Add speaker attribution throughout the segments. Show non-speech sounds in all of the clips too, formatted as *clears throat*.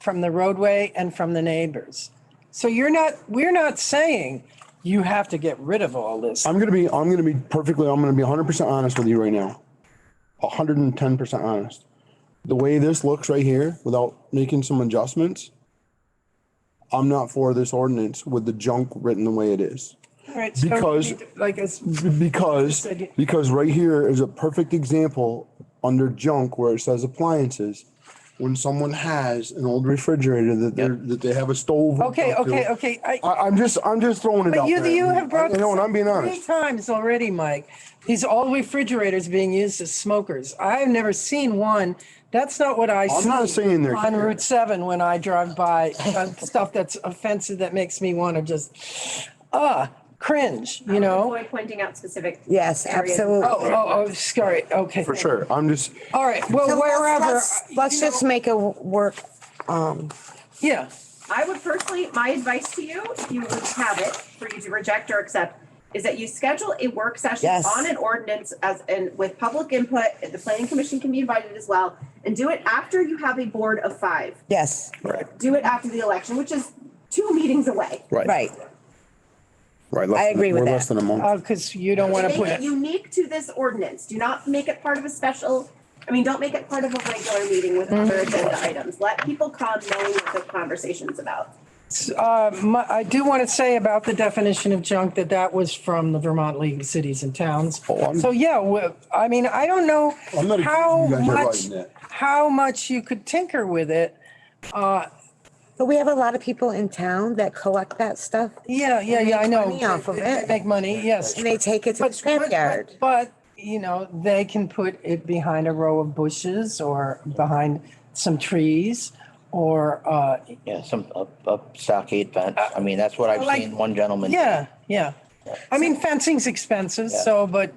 Speaker 1: from the roadway and from the neighbors. So you're not, we're not saying you have to get rid of all this.
Speaker 2: I'm gonna be, I'm gonna be perfectly, I'm gonna be hundred percent honest with you right now. hundred and ten percent honest. The way this looks right here, without making some adjustments, I'm not for this ordinance with the junk written the way it is.
Speaker 1: Right, so-
Speaker 2: because-
Speaker 1: Like, it's,
Speaker 2: Because,
Speaker 1: said you-
Speaker 2: because right here is a perfect example under junk where it says appliances. When someone has an old refrigerator that they're, that they have a stove. hooked
Speaker 1: okay,
Speaker 2: up to.
Speaker 1: okay, okay. I,
Speaker 2: I, I'm just, I'm just throwing it
Speaker 1: But
Speaker 2: out
Speaker 1: you,
Speaker 2: there.
Speaker 1: you have brought
Speaker 2: I-
Speaker 1: this
Speaker 2: You know, and
Speaker 1: up
Speaker 2: I'm being
Speaker 1: Three
Speaker 2: honest.
Speaker 1: times already, Mike. These old refrigerators being used as smokers. I've never seen one. That's not what I see.
Speaker 2: not saying they're-
Speaker 1: On Route seven, when I drive by, uh, stuff that's offensive that makes me want to just, ah, cringe, you know?
Speaker 3: Avoid pointing out specific.
Speaker 4: Yes,
Speaker 3: areas.
Speaker 4: absolutely.
Speaker 1: Oh, oh, oh, sorry, okay.
Speaker 2: For sure. I'm just,
Speaker 1: All right,
Speaker 4: So
Speaker 1: well,
Speaker 4: let's-
Speaker 1: wherever,
Speaker 4: let's- Let's just make it work.
Speaker 1: yeah.
Speaker 3: I would personally, my advice to you, if you would have it for you to reject or accept, is that you schedule a work session
Speaker 4: Yes.
Speaker 3: on an ordinance as, and with public input, the planning commission can be invited as well, and do it after you have a board of five.
Speaker 4: Yes,
Speaker 2: right,
Speaker 3: Do it after the election, which is two meetings away.
Speaker 2: right.
Speaker 4: right.
Speaker 2: Right. less
Speaker 4: I
Speaker 2: than-
Speaker 4: agree with
Speaker 2: we're
Speaker 4: that.
Speaker 2: Less than a month.
Speaker 1: Uh, cause you don't want to
Speaker 3: Make
Speaker 1: put
Speaker 3: it
Speaker 1: it,
Speaker 3: unique to this ordinance. Do not make it part of a special, I mean, don't make it part of a regular meeting with other agenda items. Let people come knowing what the conversation's about.
Speaker 1: uh, my, I do want to say about the definition of junk that that was from the Vermont League of Cities and Towns.
Speaker 2: Oh, I'm-
Speaker 1: So, yeah, well, I mean, I don't know
Speaker 2: I'm not accusing
Speaker 1: how
Speaker 2: you guys of
Speaker 1: much,
Speaker 2: writing that.
Speaker 1: how much you could tinker with it.
Speaker 4: But we have a lot of people in town that collect that stuff
Speaker 1: Yeah, yeah, yeah, I know.
Speaker 4: money off of
Speaker 1: They- they
Speaker 4: it.
Speaker 1: Make money, yes.
Speaker 4: and they take it to the
Speaker 1: But- but-
Speaker 4: scrapyard.
Speaker 1: But, you know, they can put it behind a row of bushes or behind some trees or, uh,
Speaker 5: Yeah, some up, up stockade fence. I mean, that's what I've
Speaker 1: like-
Speaker 5: seen one gentleman. do.
Speaker 1: yeah, yeah. I mean, fencing's expensive,
Speaker 5: Yeah.
Speaker 1: so, but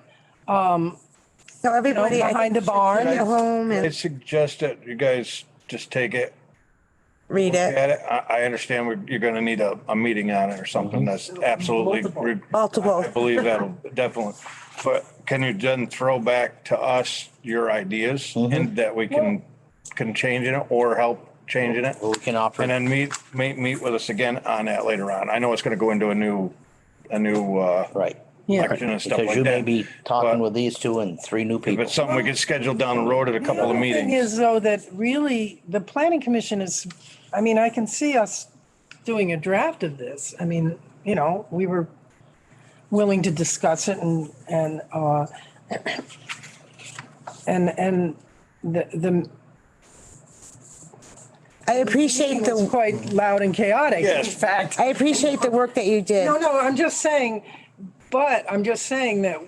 Speaker 4: So everybody. I
Speaker 1: behind
Speaker 4: think,
Speaker 1: the barn.
Speaker 4: should Get home
Speaker 6: I
Speaker 4: and
Speaker 6: suggest that you guys just take it,
Speaker 4: read
Speaker 6: look
Speaker 4: it.
Speaker 6: at it. I, I understand we- you're gonna need a, a meeting on it or
Speaker 5: Mm-hmm.
Speaker 6: something that's absolutely. re-
Speaker 4: Multiple.
Speaker 6: I believe that'll definitely, but can you then throw back to us your ideas
Speaker 5: Mm-hmm.
Speaker 6: and that we can, can change it or help changing it?
Speaker 5: Well, We can offer.
Speaker 6: And then meet, meet, meet with us again on that later on. I know it's gonna go into a new, a new, uh.
Speaker 5: Right.
Speaker 1: Yeah.
Speaker 6: Election and stuff
Speaker 5: Because
Speaker 6: like
Speaker 5: you may
Speaker 6: that.
Speaker 5: be talking
Speaker 6: But-
Speaker 5: with these two and three new
Speaker 6: If
Speaker 5: people.
Speaker 6: it's something we could schedule down the road at a couple of
Speaker 1: The thing
Speaker 6: meetings.
Speaker 1: is though that really the planning commission is, I mean, I can see us doing a draft of this. I mean, you know, we were willing to discuss it and, and, uh, *clears throat* and, and the, the,
Speaker 4: I appreciate
Speaker 1: it was
Speaker 4: the,
Speaker 1: quite loud and chaotic.
Speaker 6: Yes.
Speaker 1: In fact,
Speaker 4: I appreciate the work that you did.
Speaker 1: no, no, I'm just saying, but I'm just saying that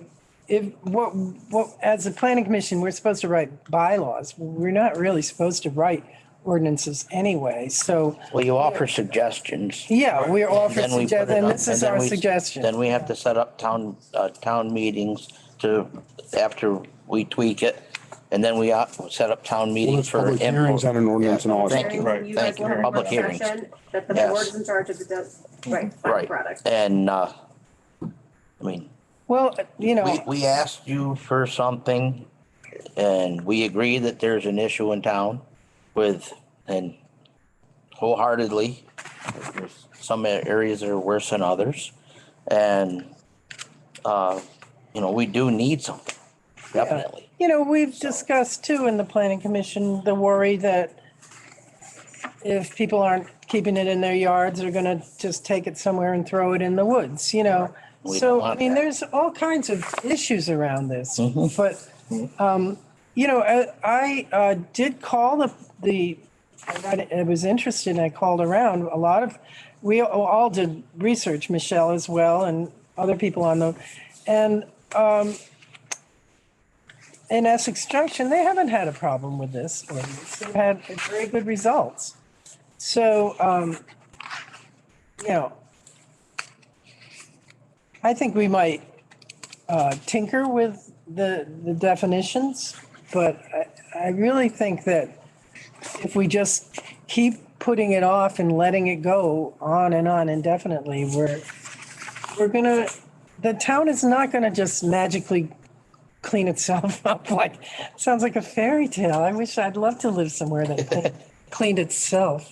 Speaker 1: if, what, what, as a planning commission, we're supposed to write bylaws. We're not really supposed to write ordinances anyway, so.
Speaker 5: Well, you offer suggestions.
Speaker 1: Yeah, we're offering
Speaker 5: Then we put
Speaker 1: suggestions,
Speaker 5: it
Speaker 1: and
Speaker 5: up,
Speaker 1: this is
Speaker 5: then
Speaker 1: our
Speaker 5: we- Then
Speaker 1: suggestion.
Speaker 5: we have to set up town, uh, town meetings to, after we tweak it. And then we uh, set up town
Speaker 2: There's
Speaker 5: meetings for.
Speaker 2: public
Speaker 5: input.
Speaker 2: hearings on an ordinance and all
Speaker 5: Thank
Speaker 2: that.
Speaker 5: you.
Speaker 6: Right.
Speaker 3: You guys
Speaker 5: Thank you.
Speaker 3: want a
Speaker 5: Public
Speaker 3: work
Speaker 5: hearings.
Speaker 3: session That the
Speaker 5: Yes.
Speaker 3: board's in charge of the, de- right, final
Speaker 5: Right.
Speaker 3: product.
Speaker 5: And, uh, I mean,
Speaker 1: Well, you
Speaker 5: we,
Speaker 1: know,
Speaker 5: we asked you for something and we agree that there's an issue in town with, and wholeheartedly, there's some areas that are worse than others. And, uh, you know, we do need something, definitely.
Speaker 1: you know, we've discussed too in the planning commission, the worry that if people aren't keeping it in their yards, they're gonna just take it somewhere and throw it in the woods, you know?
Speaker 5: We don't
Speaker 1: So, I
Speaker 5: want
Speaker 1: mean,
Speaker 5: that. Mm-hmm.
Speaker 1: there's all kinds of issues around this, but, um, you know, I, I uh, did call the, the I read- I was interested and I called around a lot of, we all did research, Michelle as well and other people on the, and um, in Essex Junction, they haven't had a problem with this ordinance. They've had very good results. So, um, you know, I think we might uh, tinker with the, the definitions, but I, I really think that if we just keep putting it off and letting it go on and on indefinitely, we're, we're gonna, the town is not gonna just magically clean itself *laughs* up like, sounds like a fairy tale. I wish, I'd love to live somewhere that cleaned itself.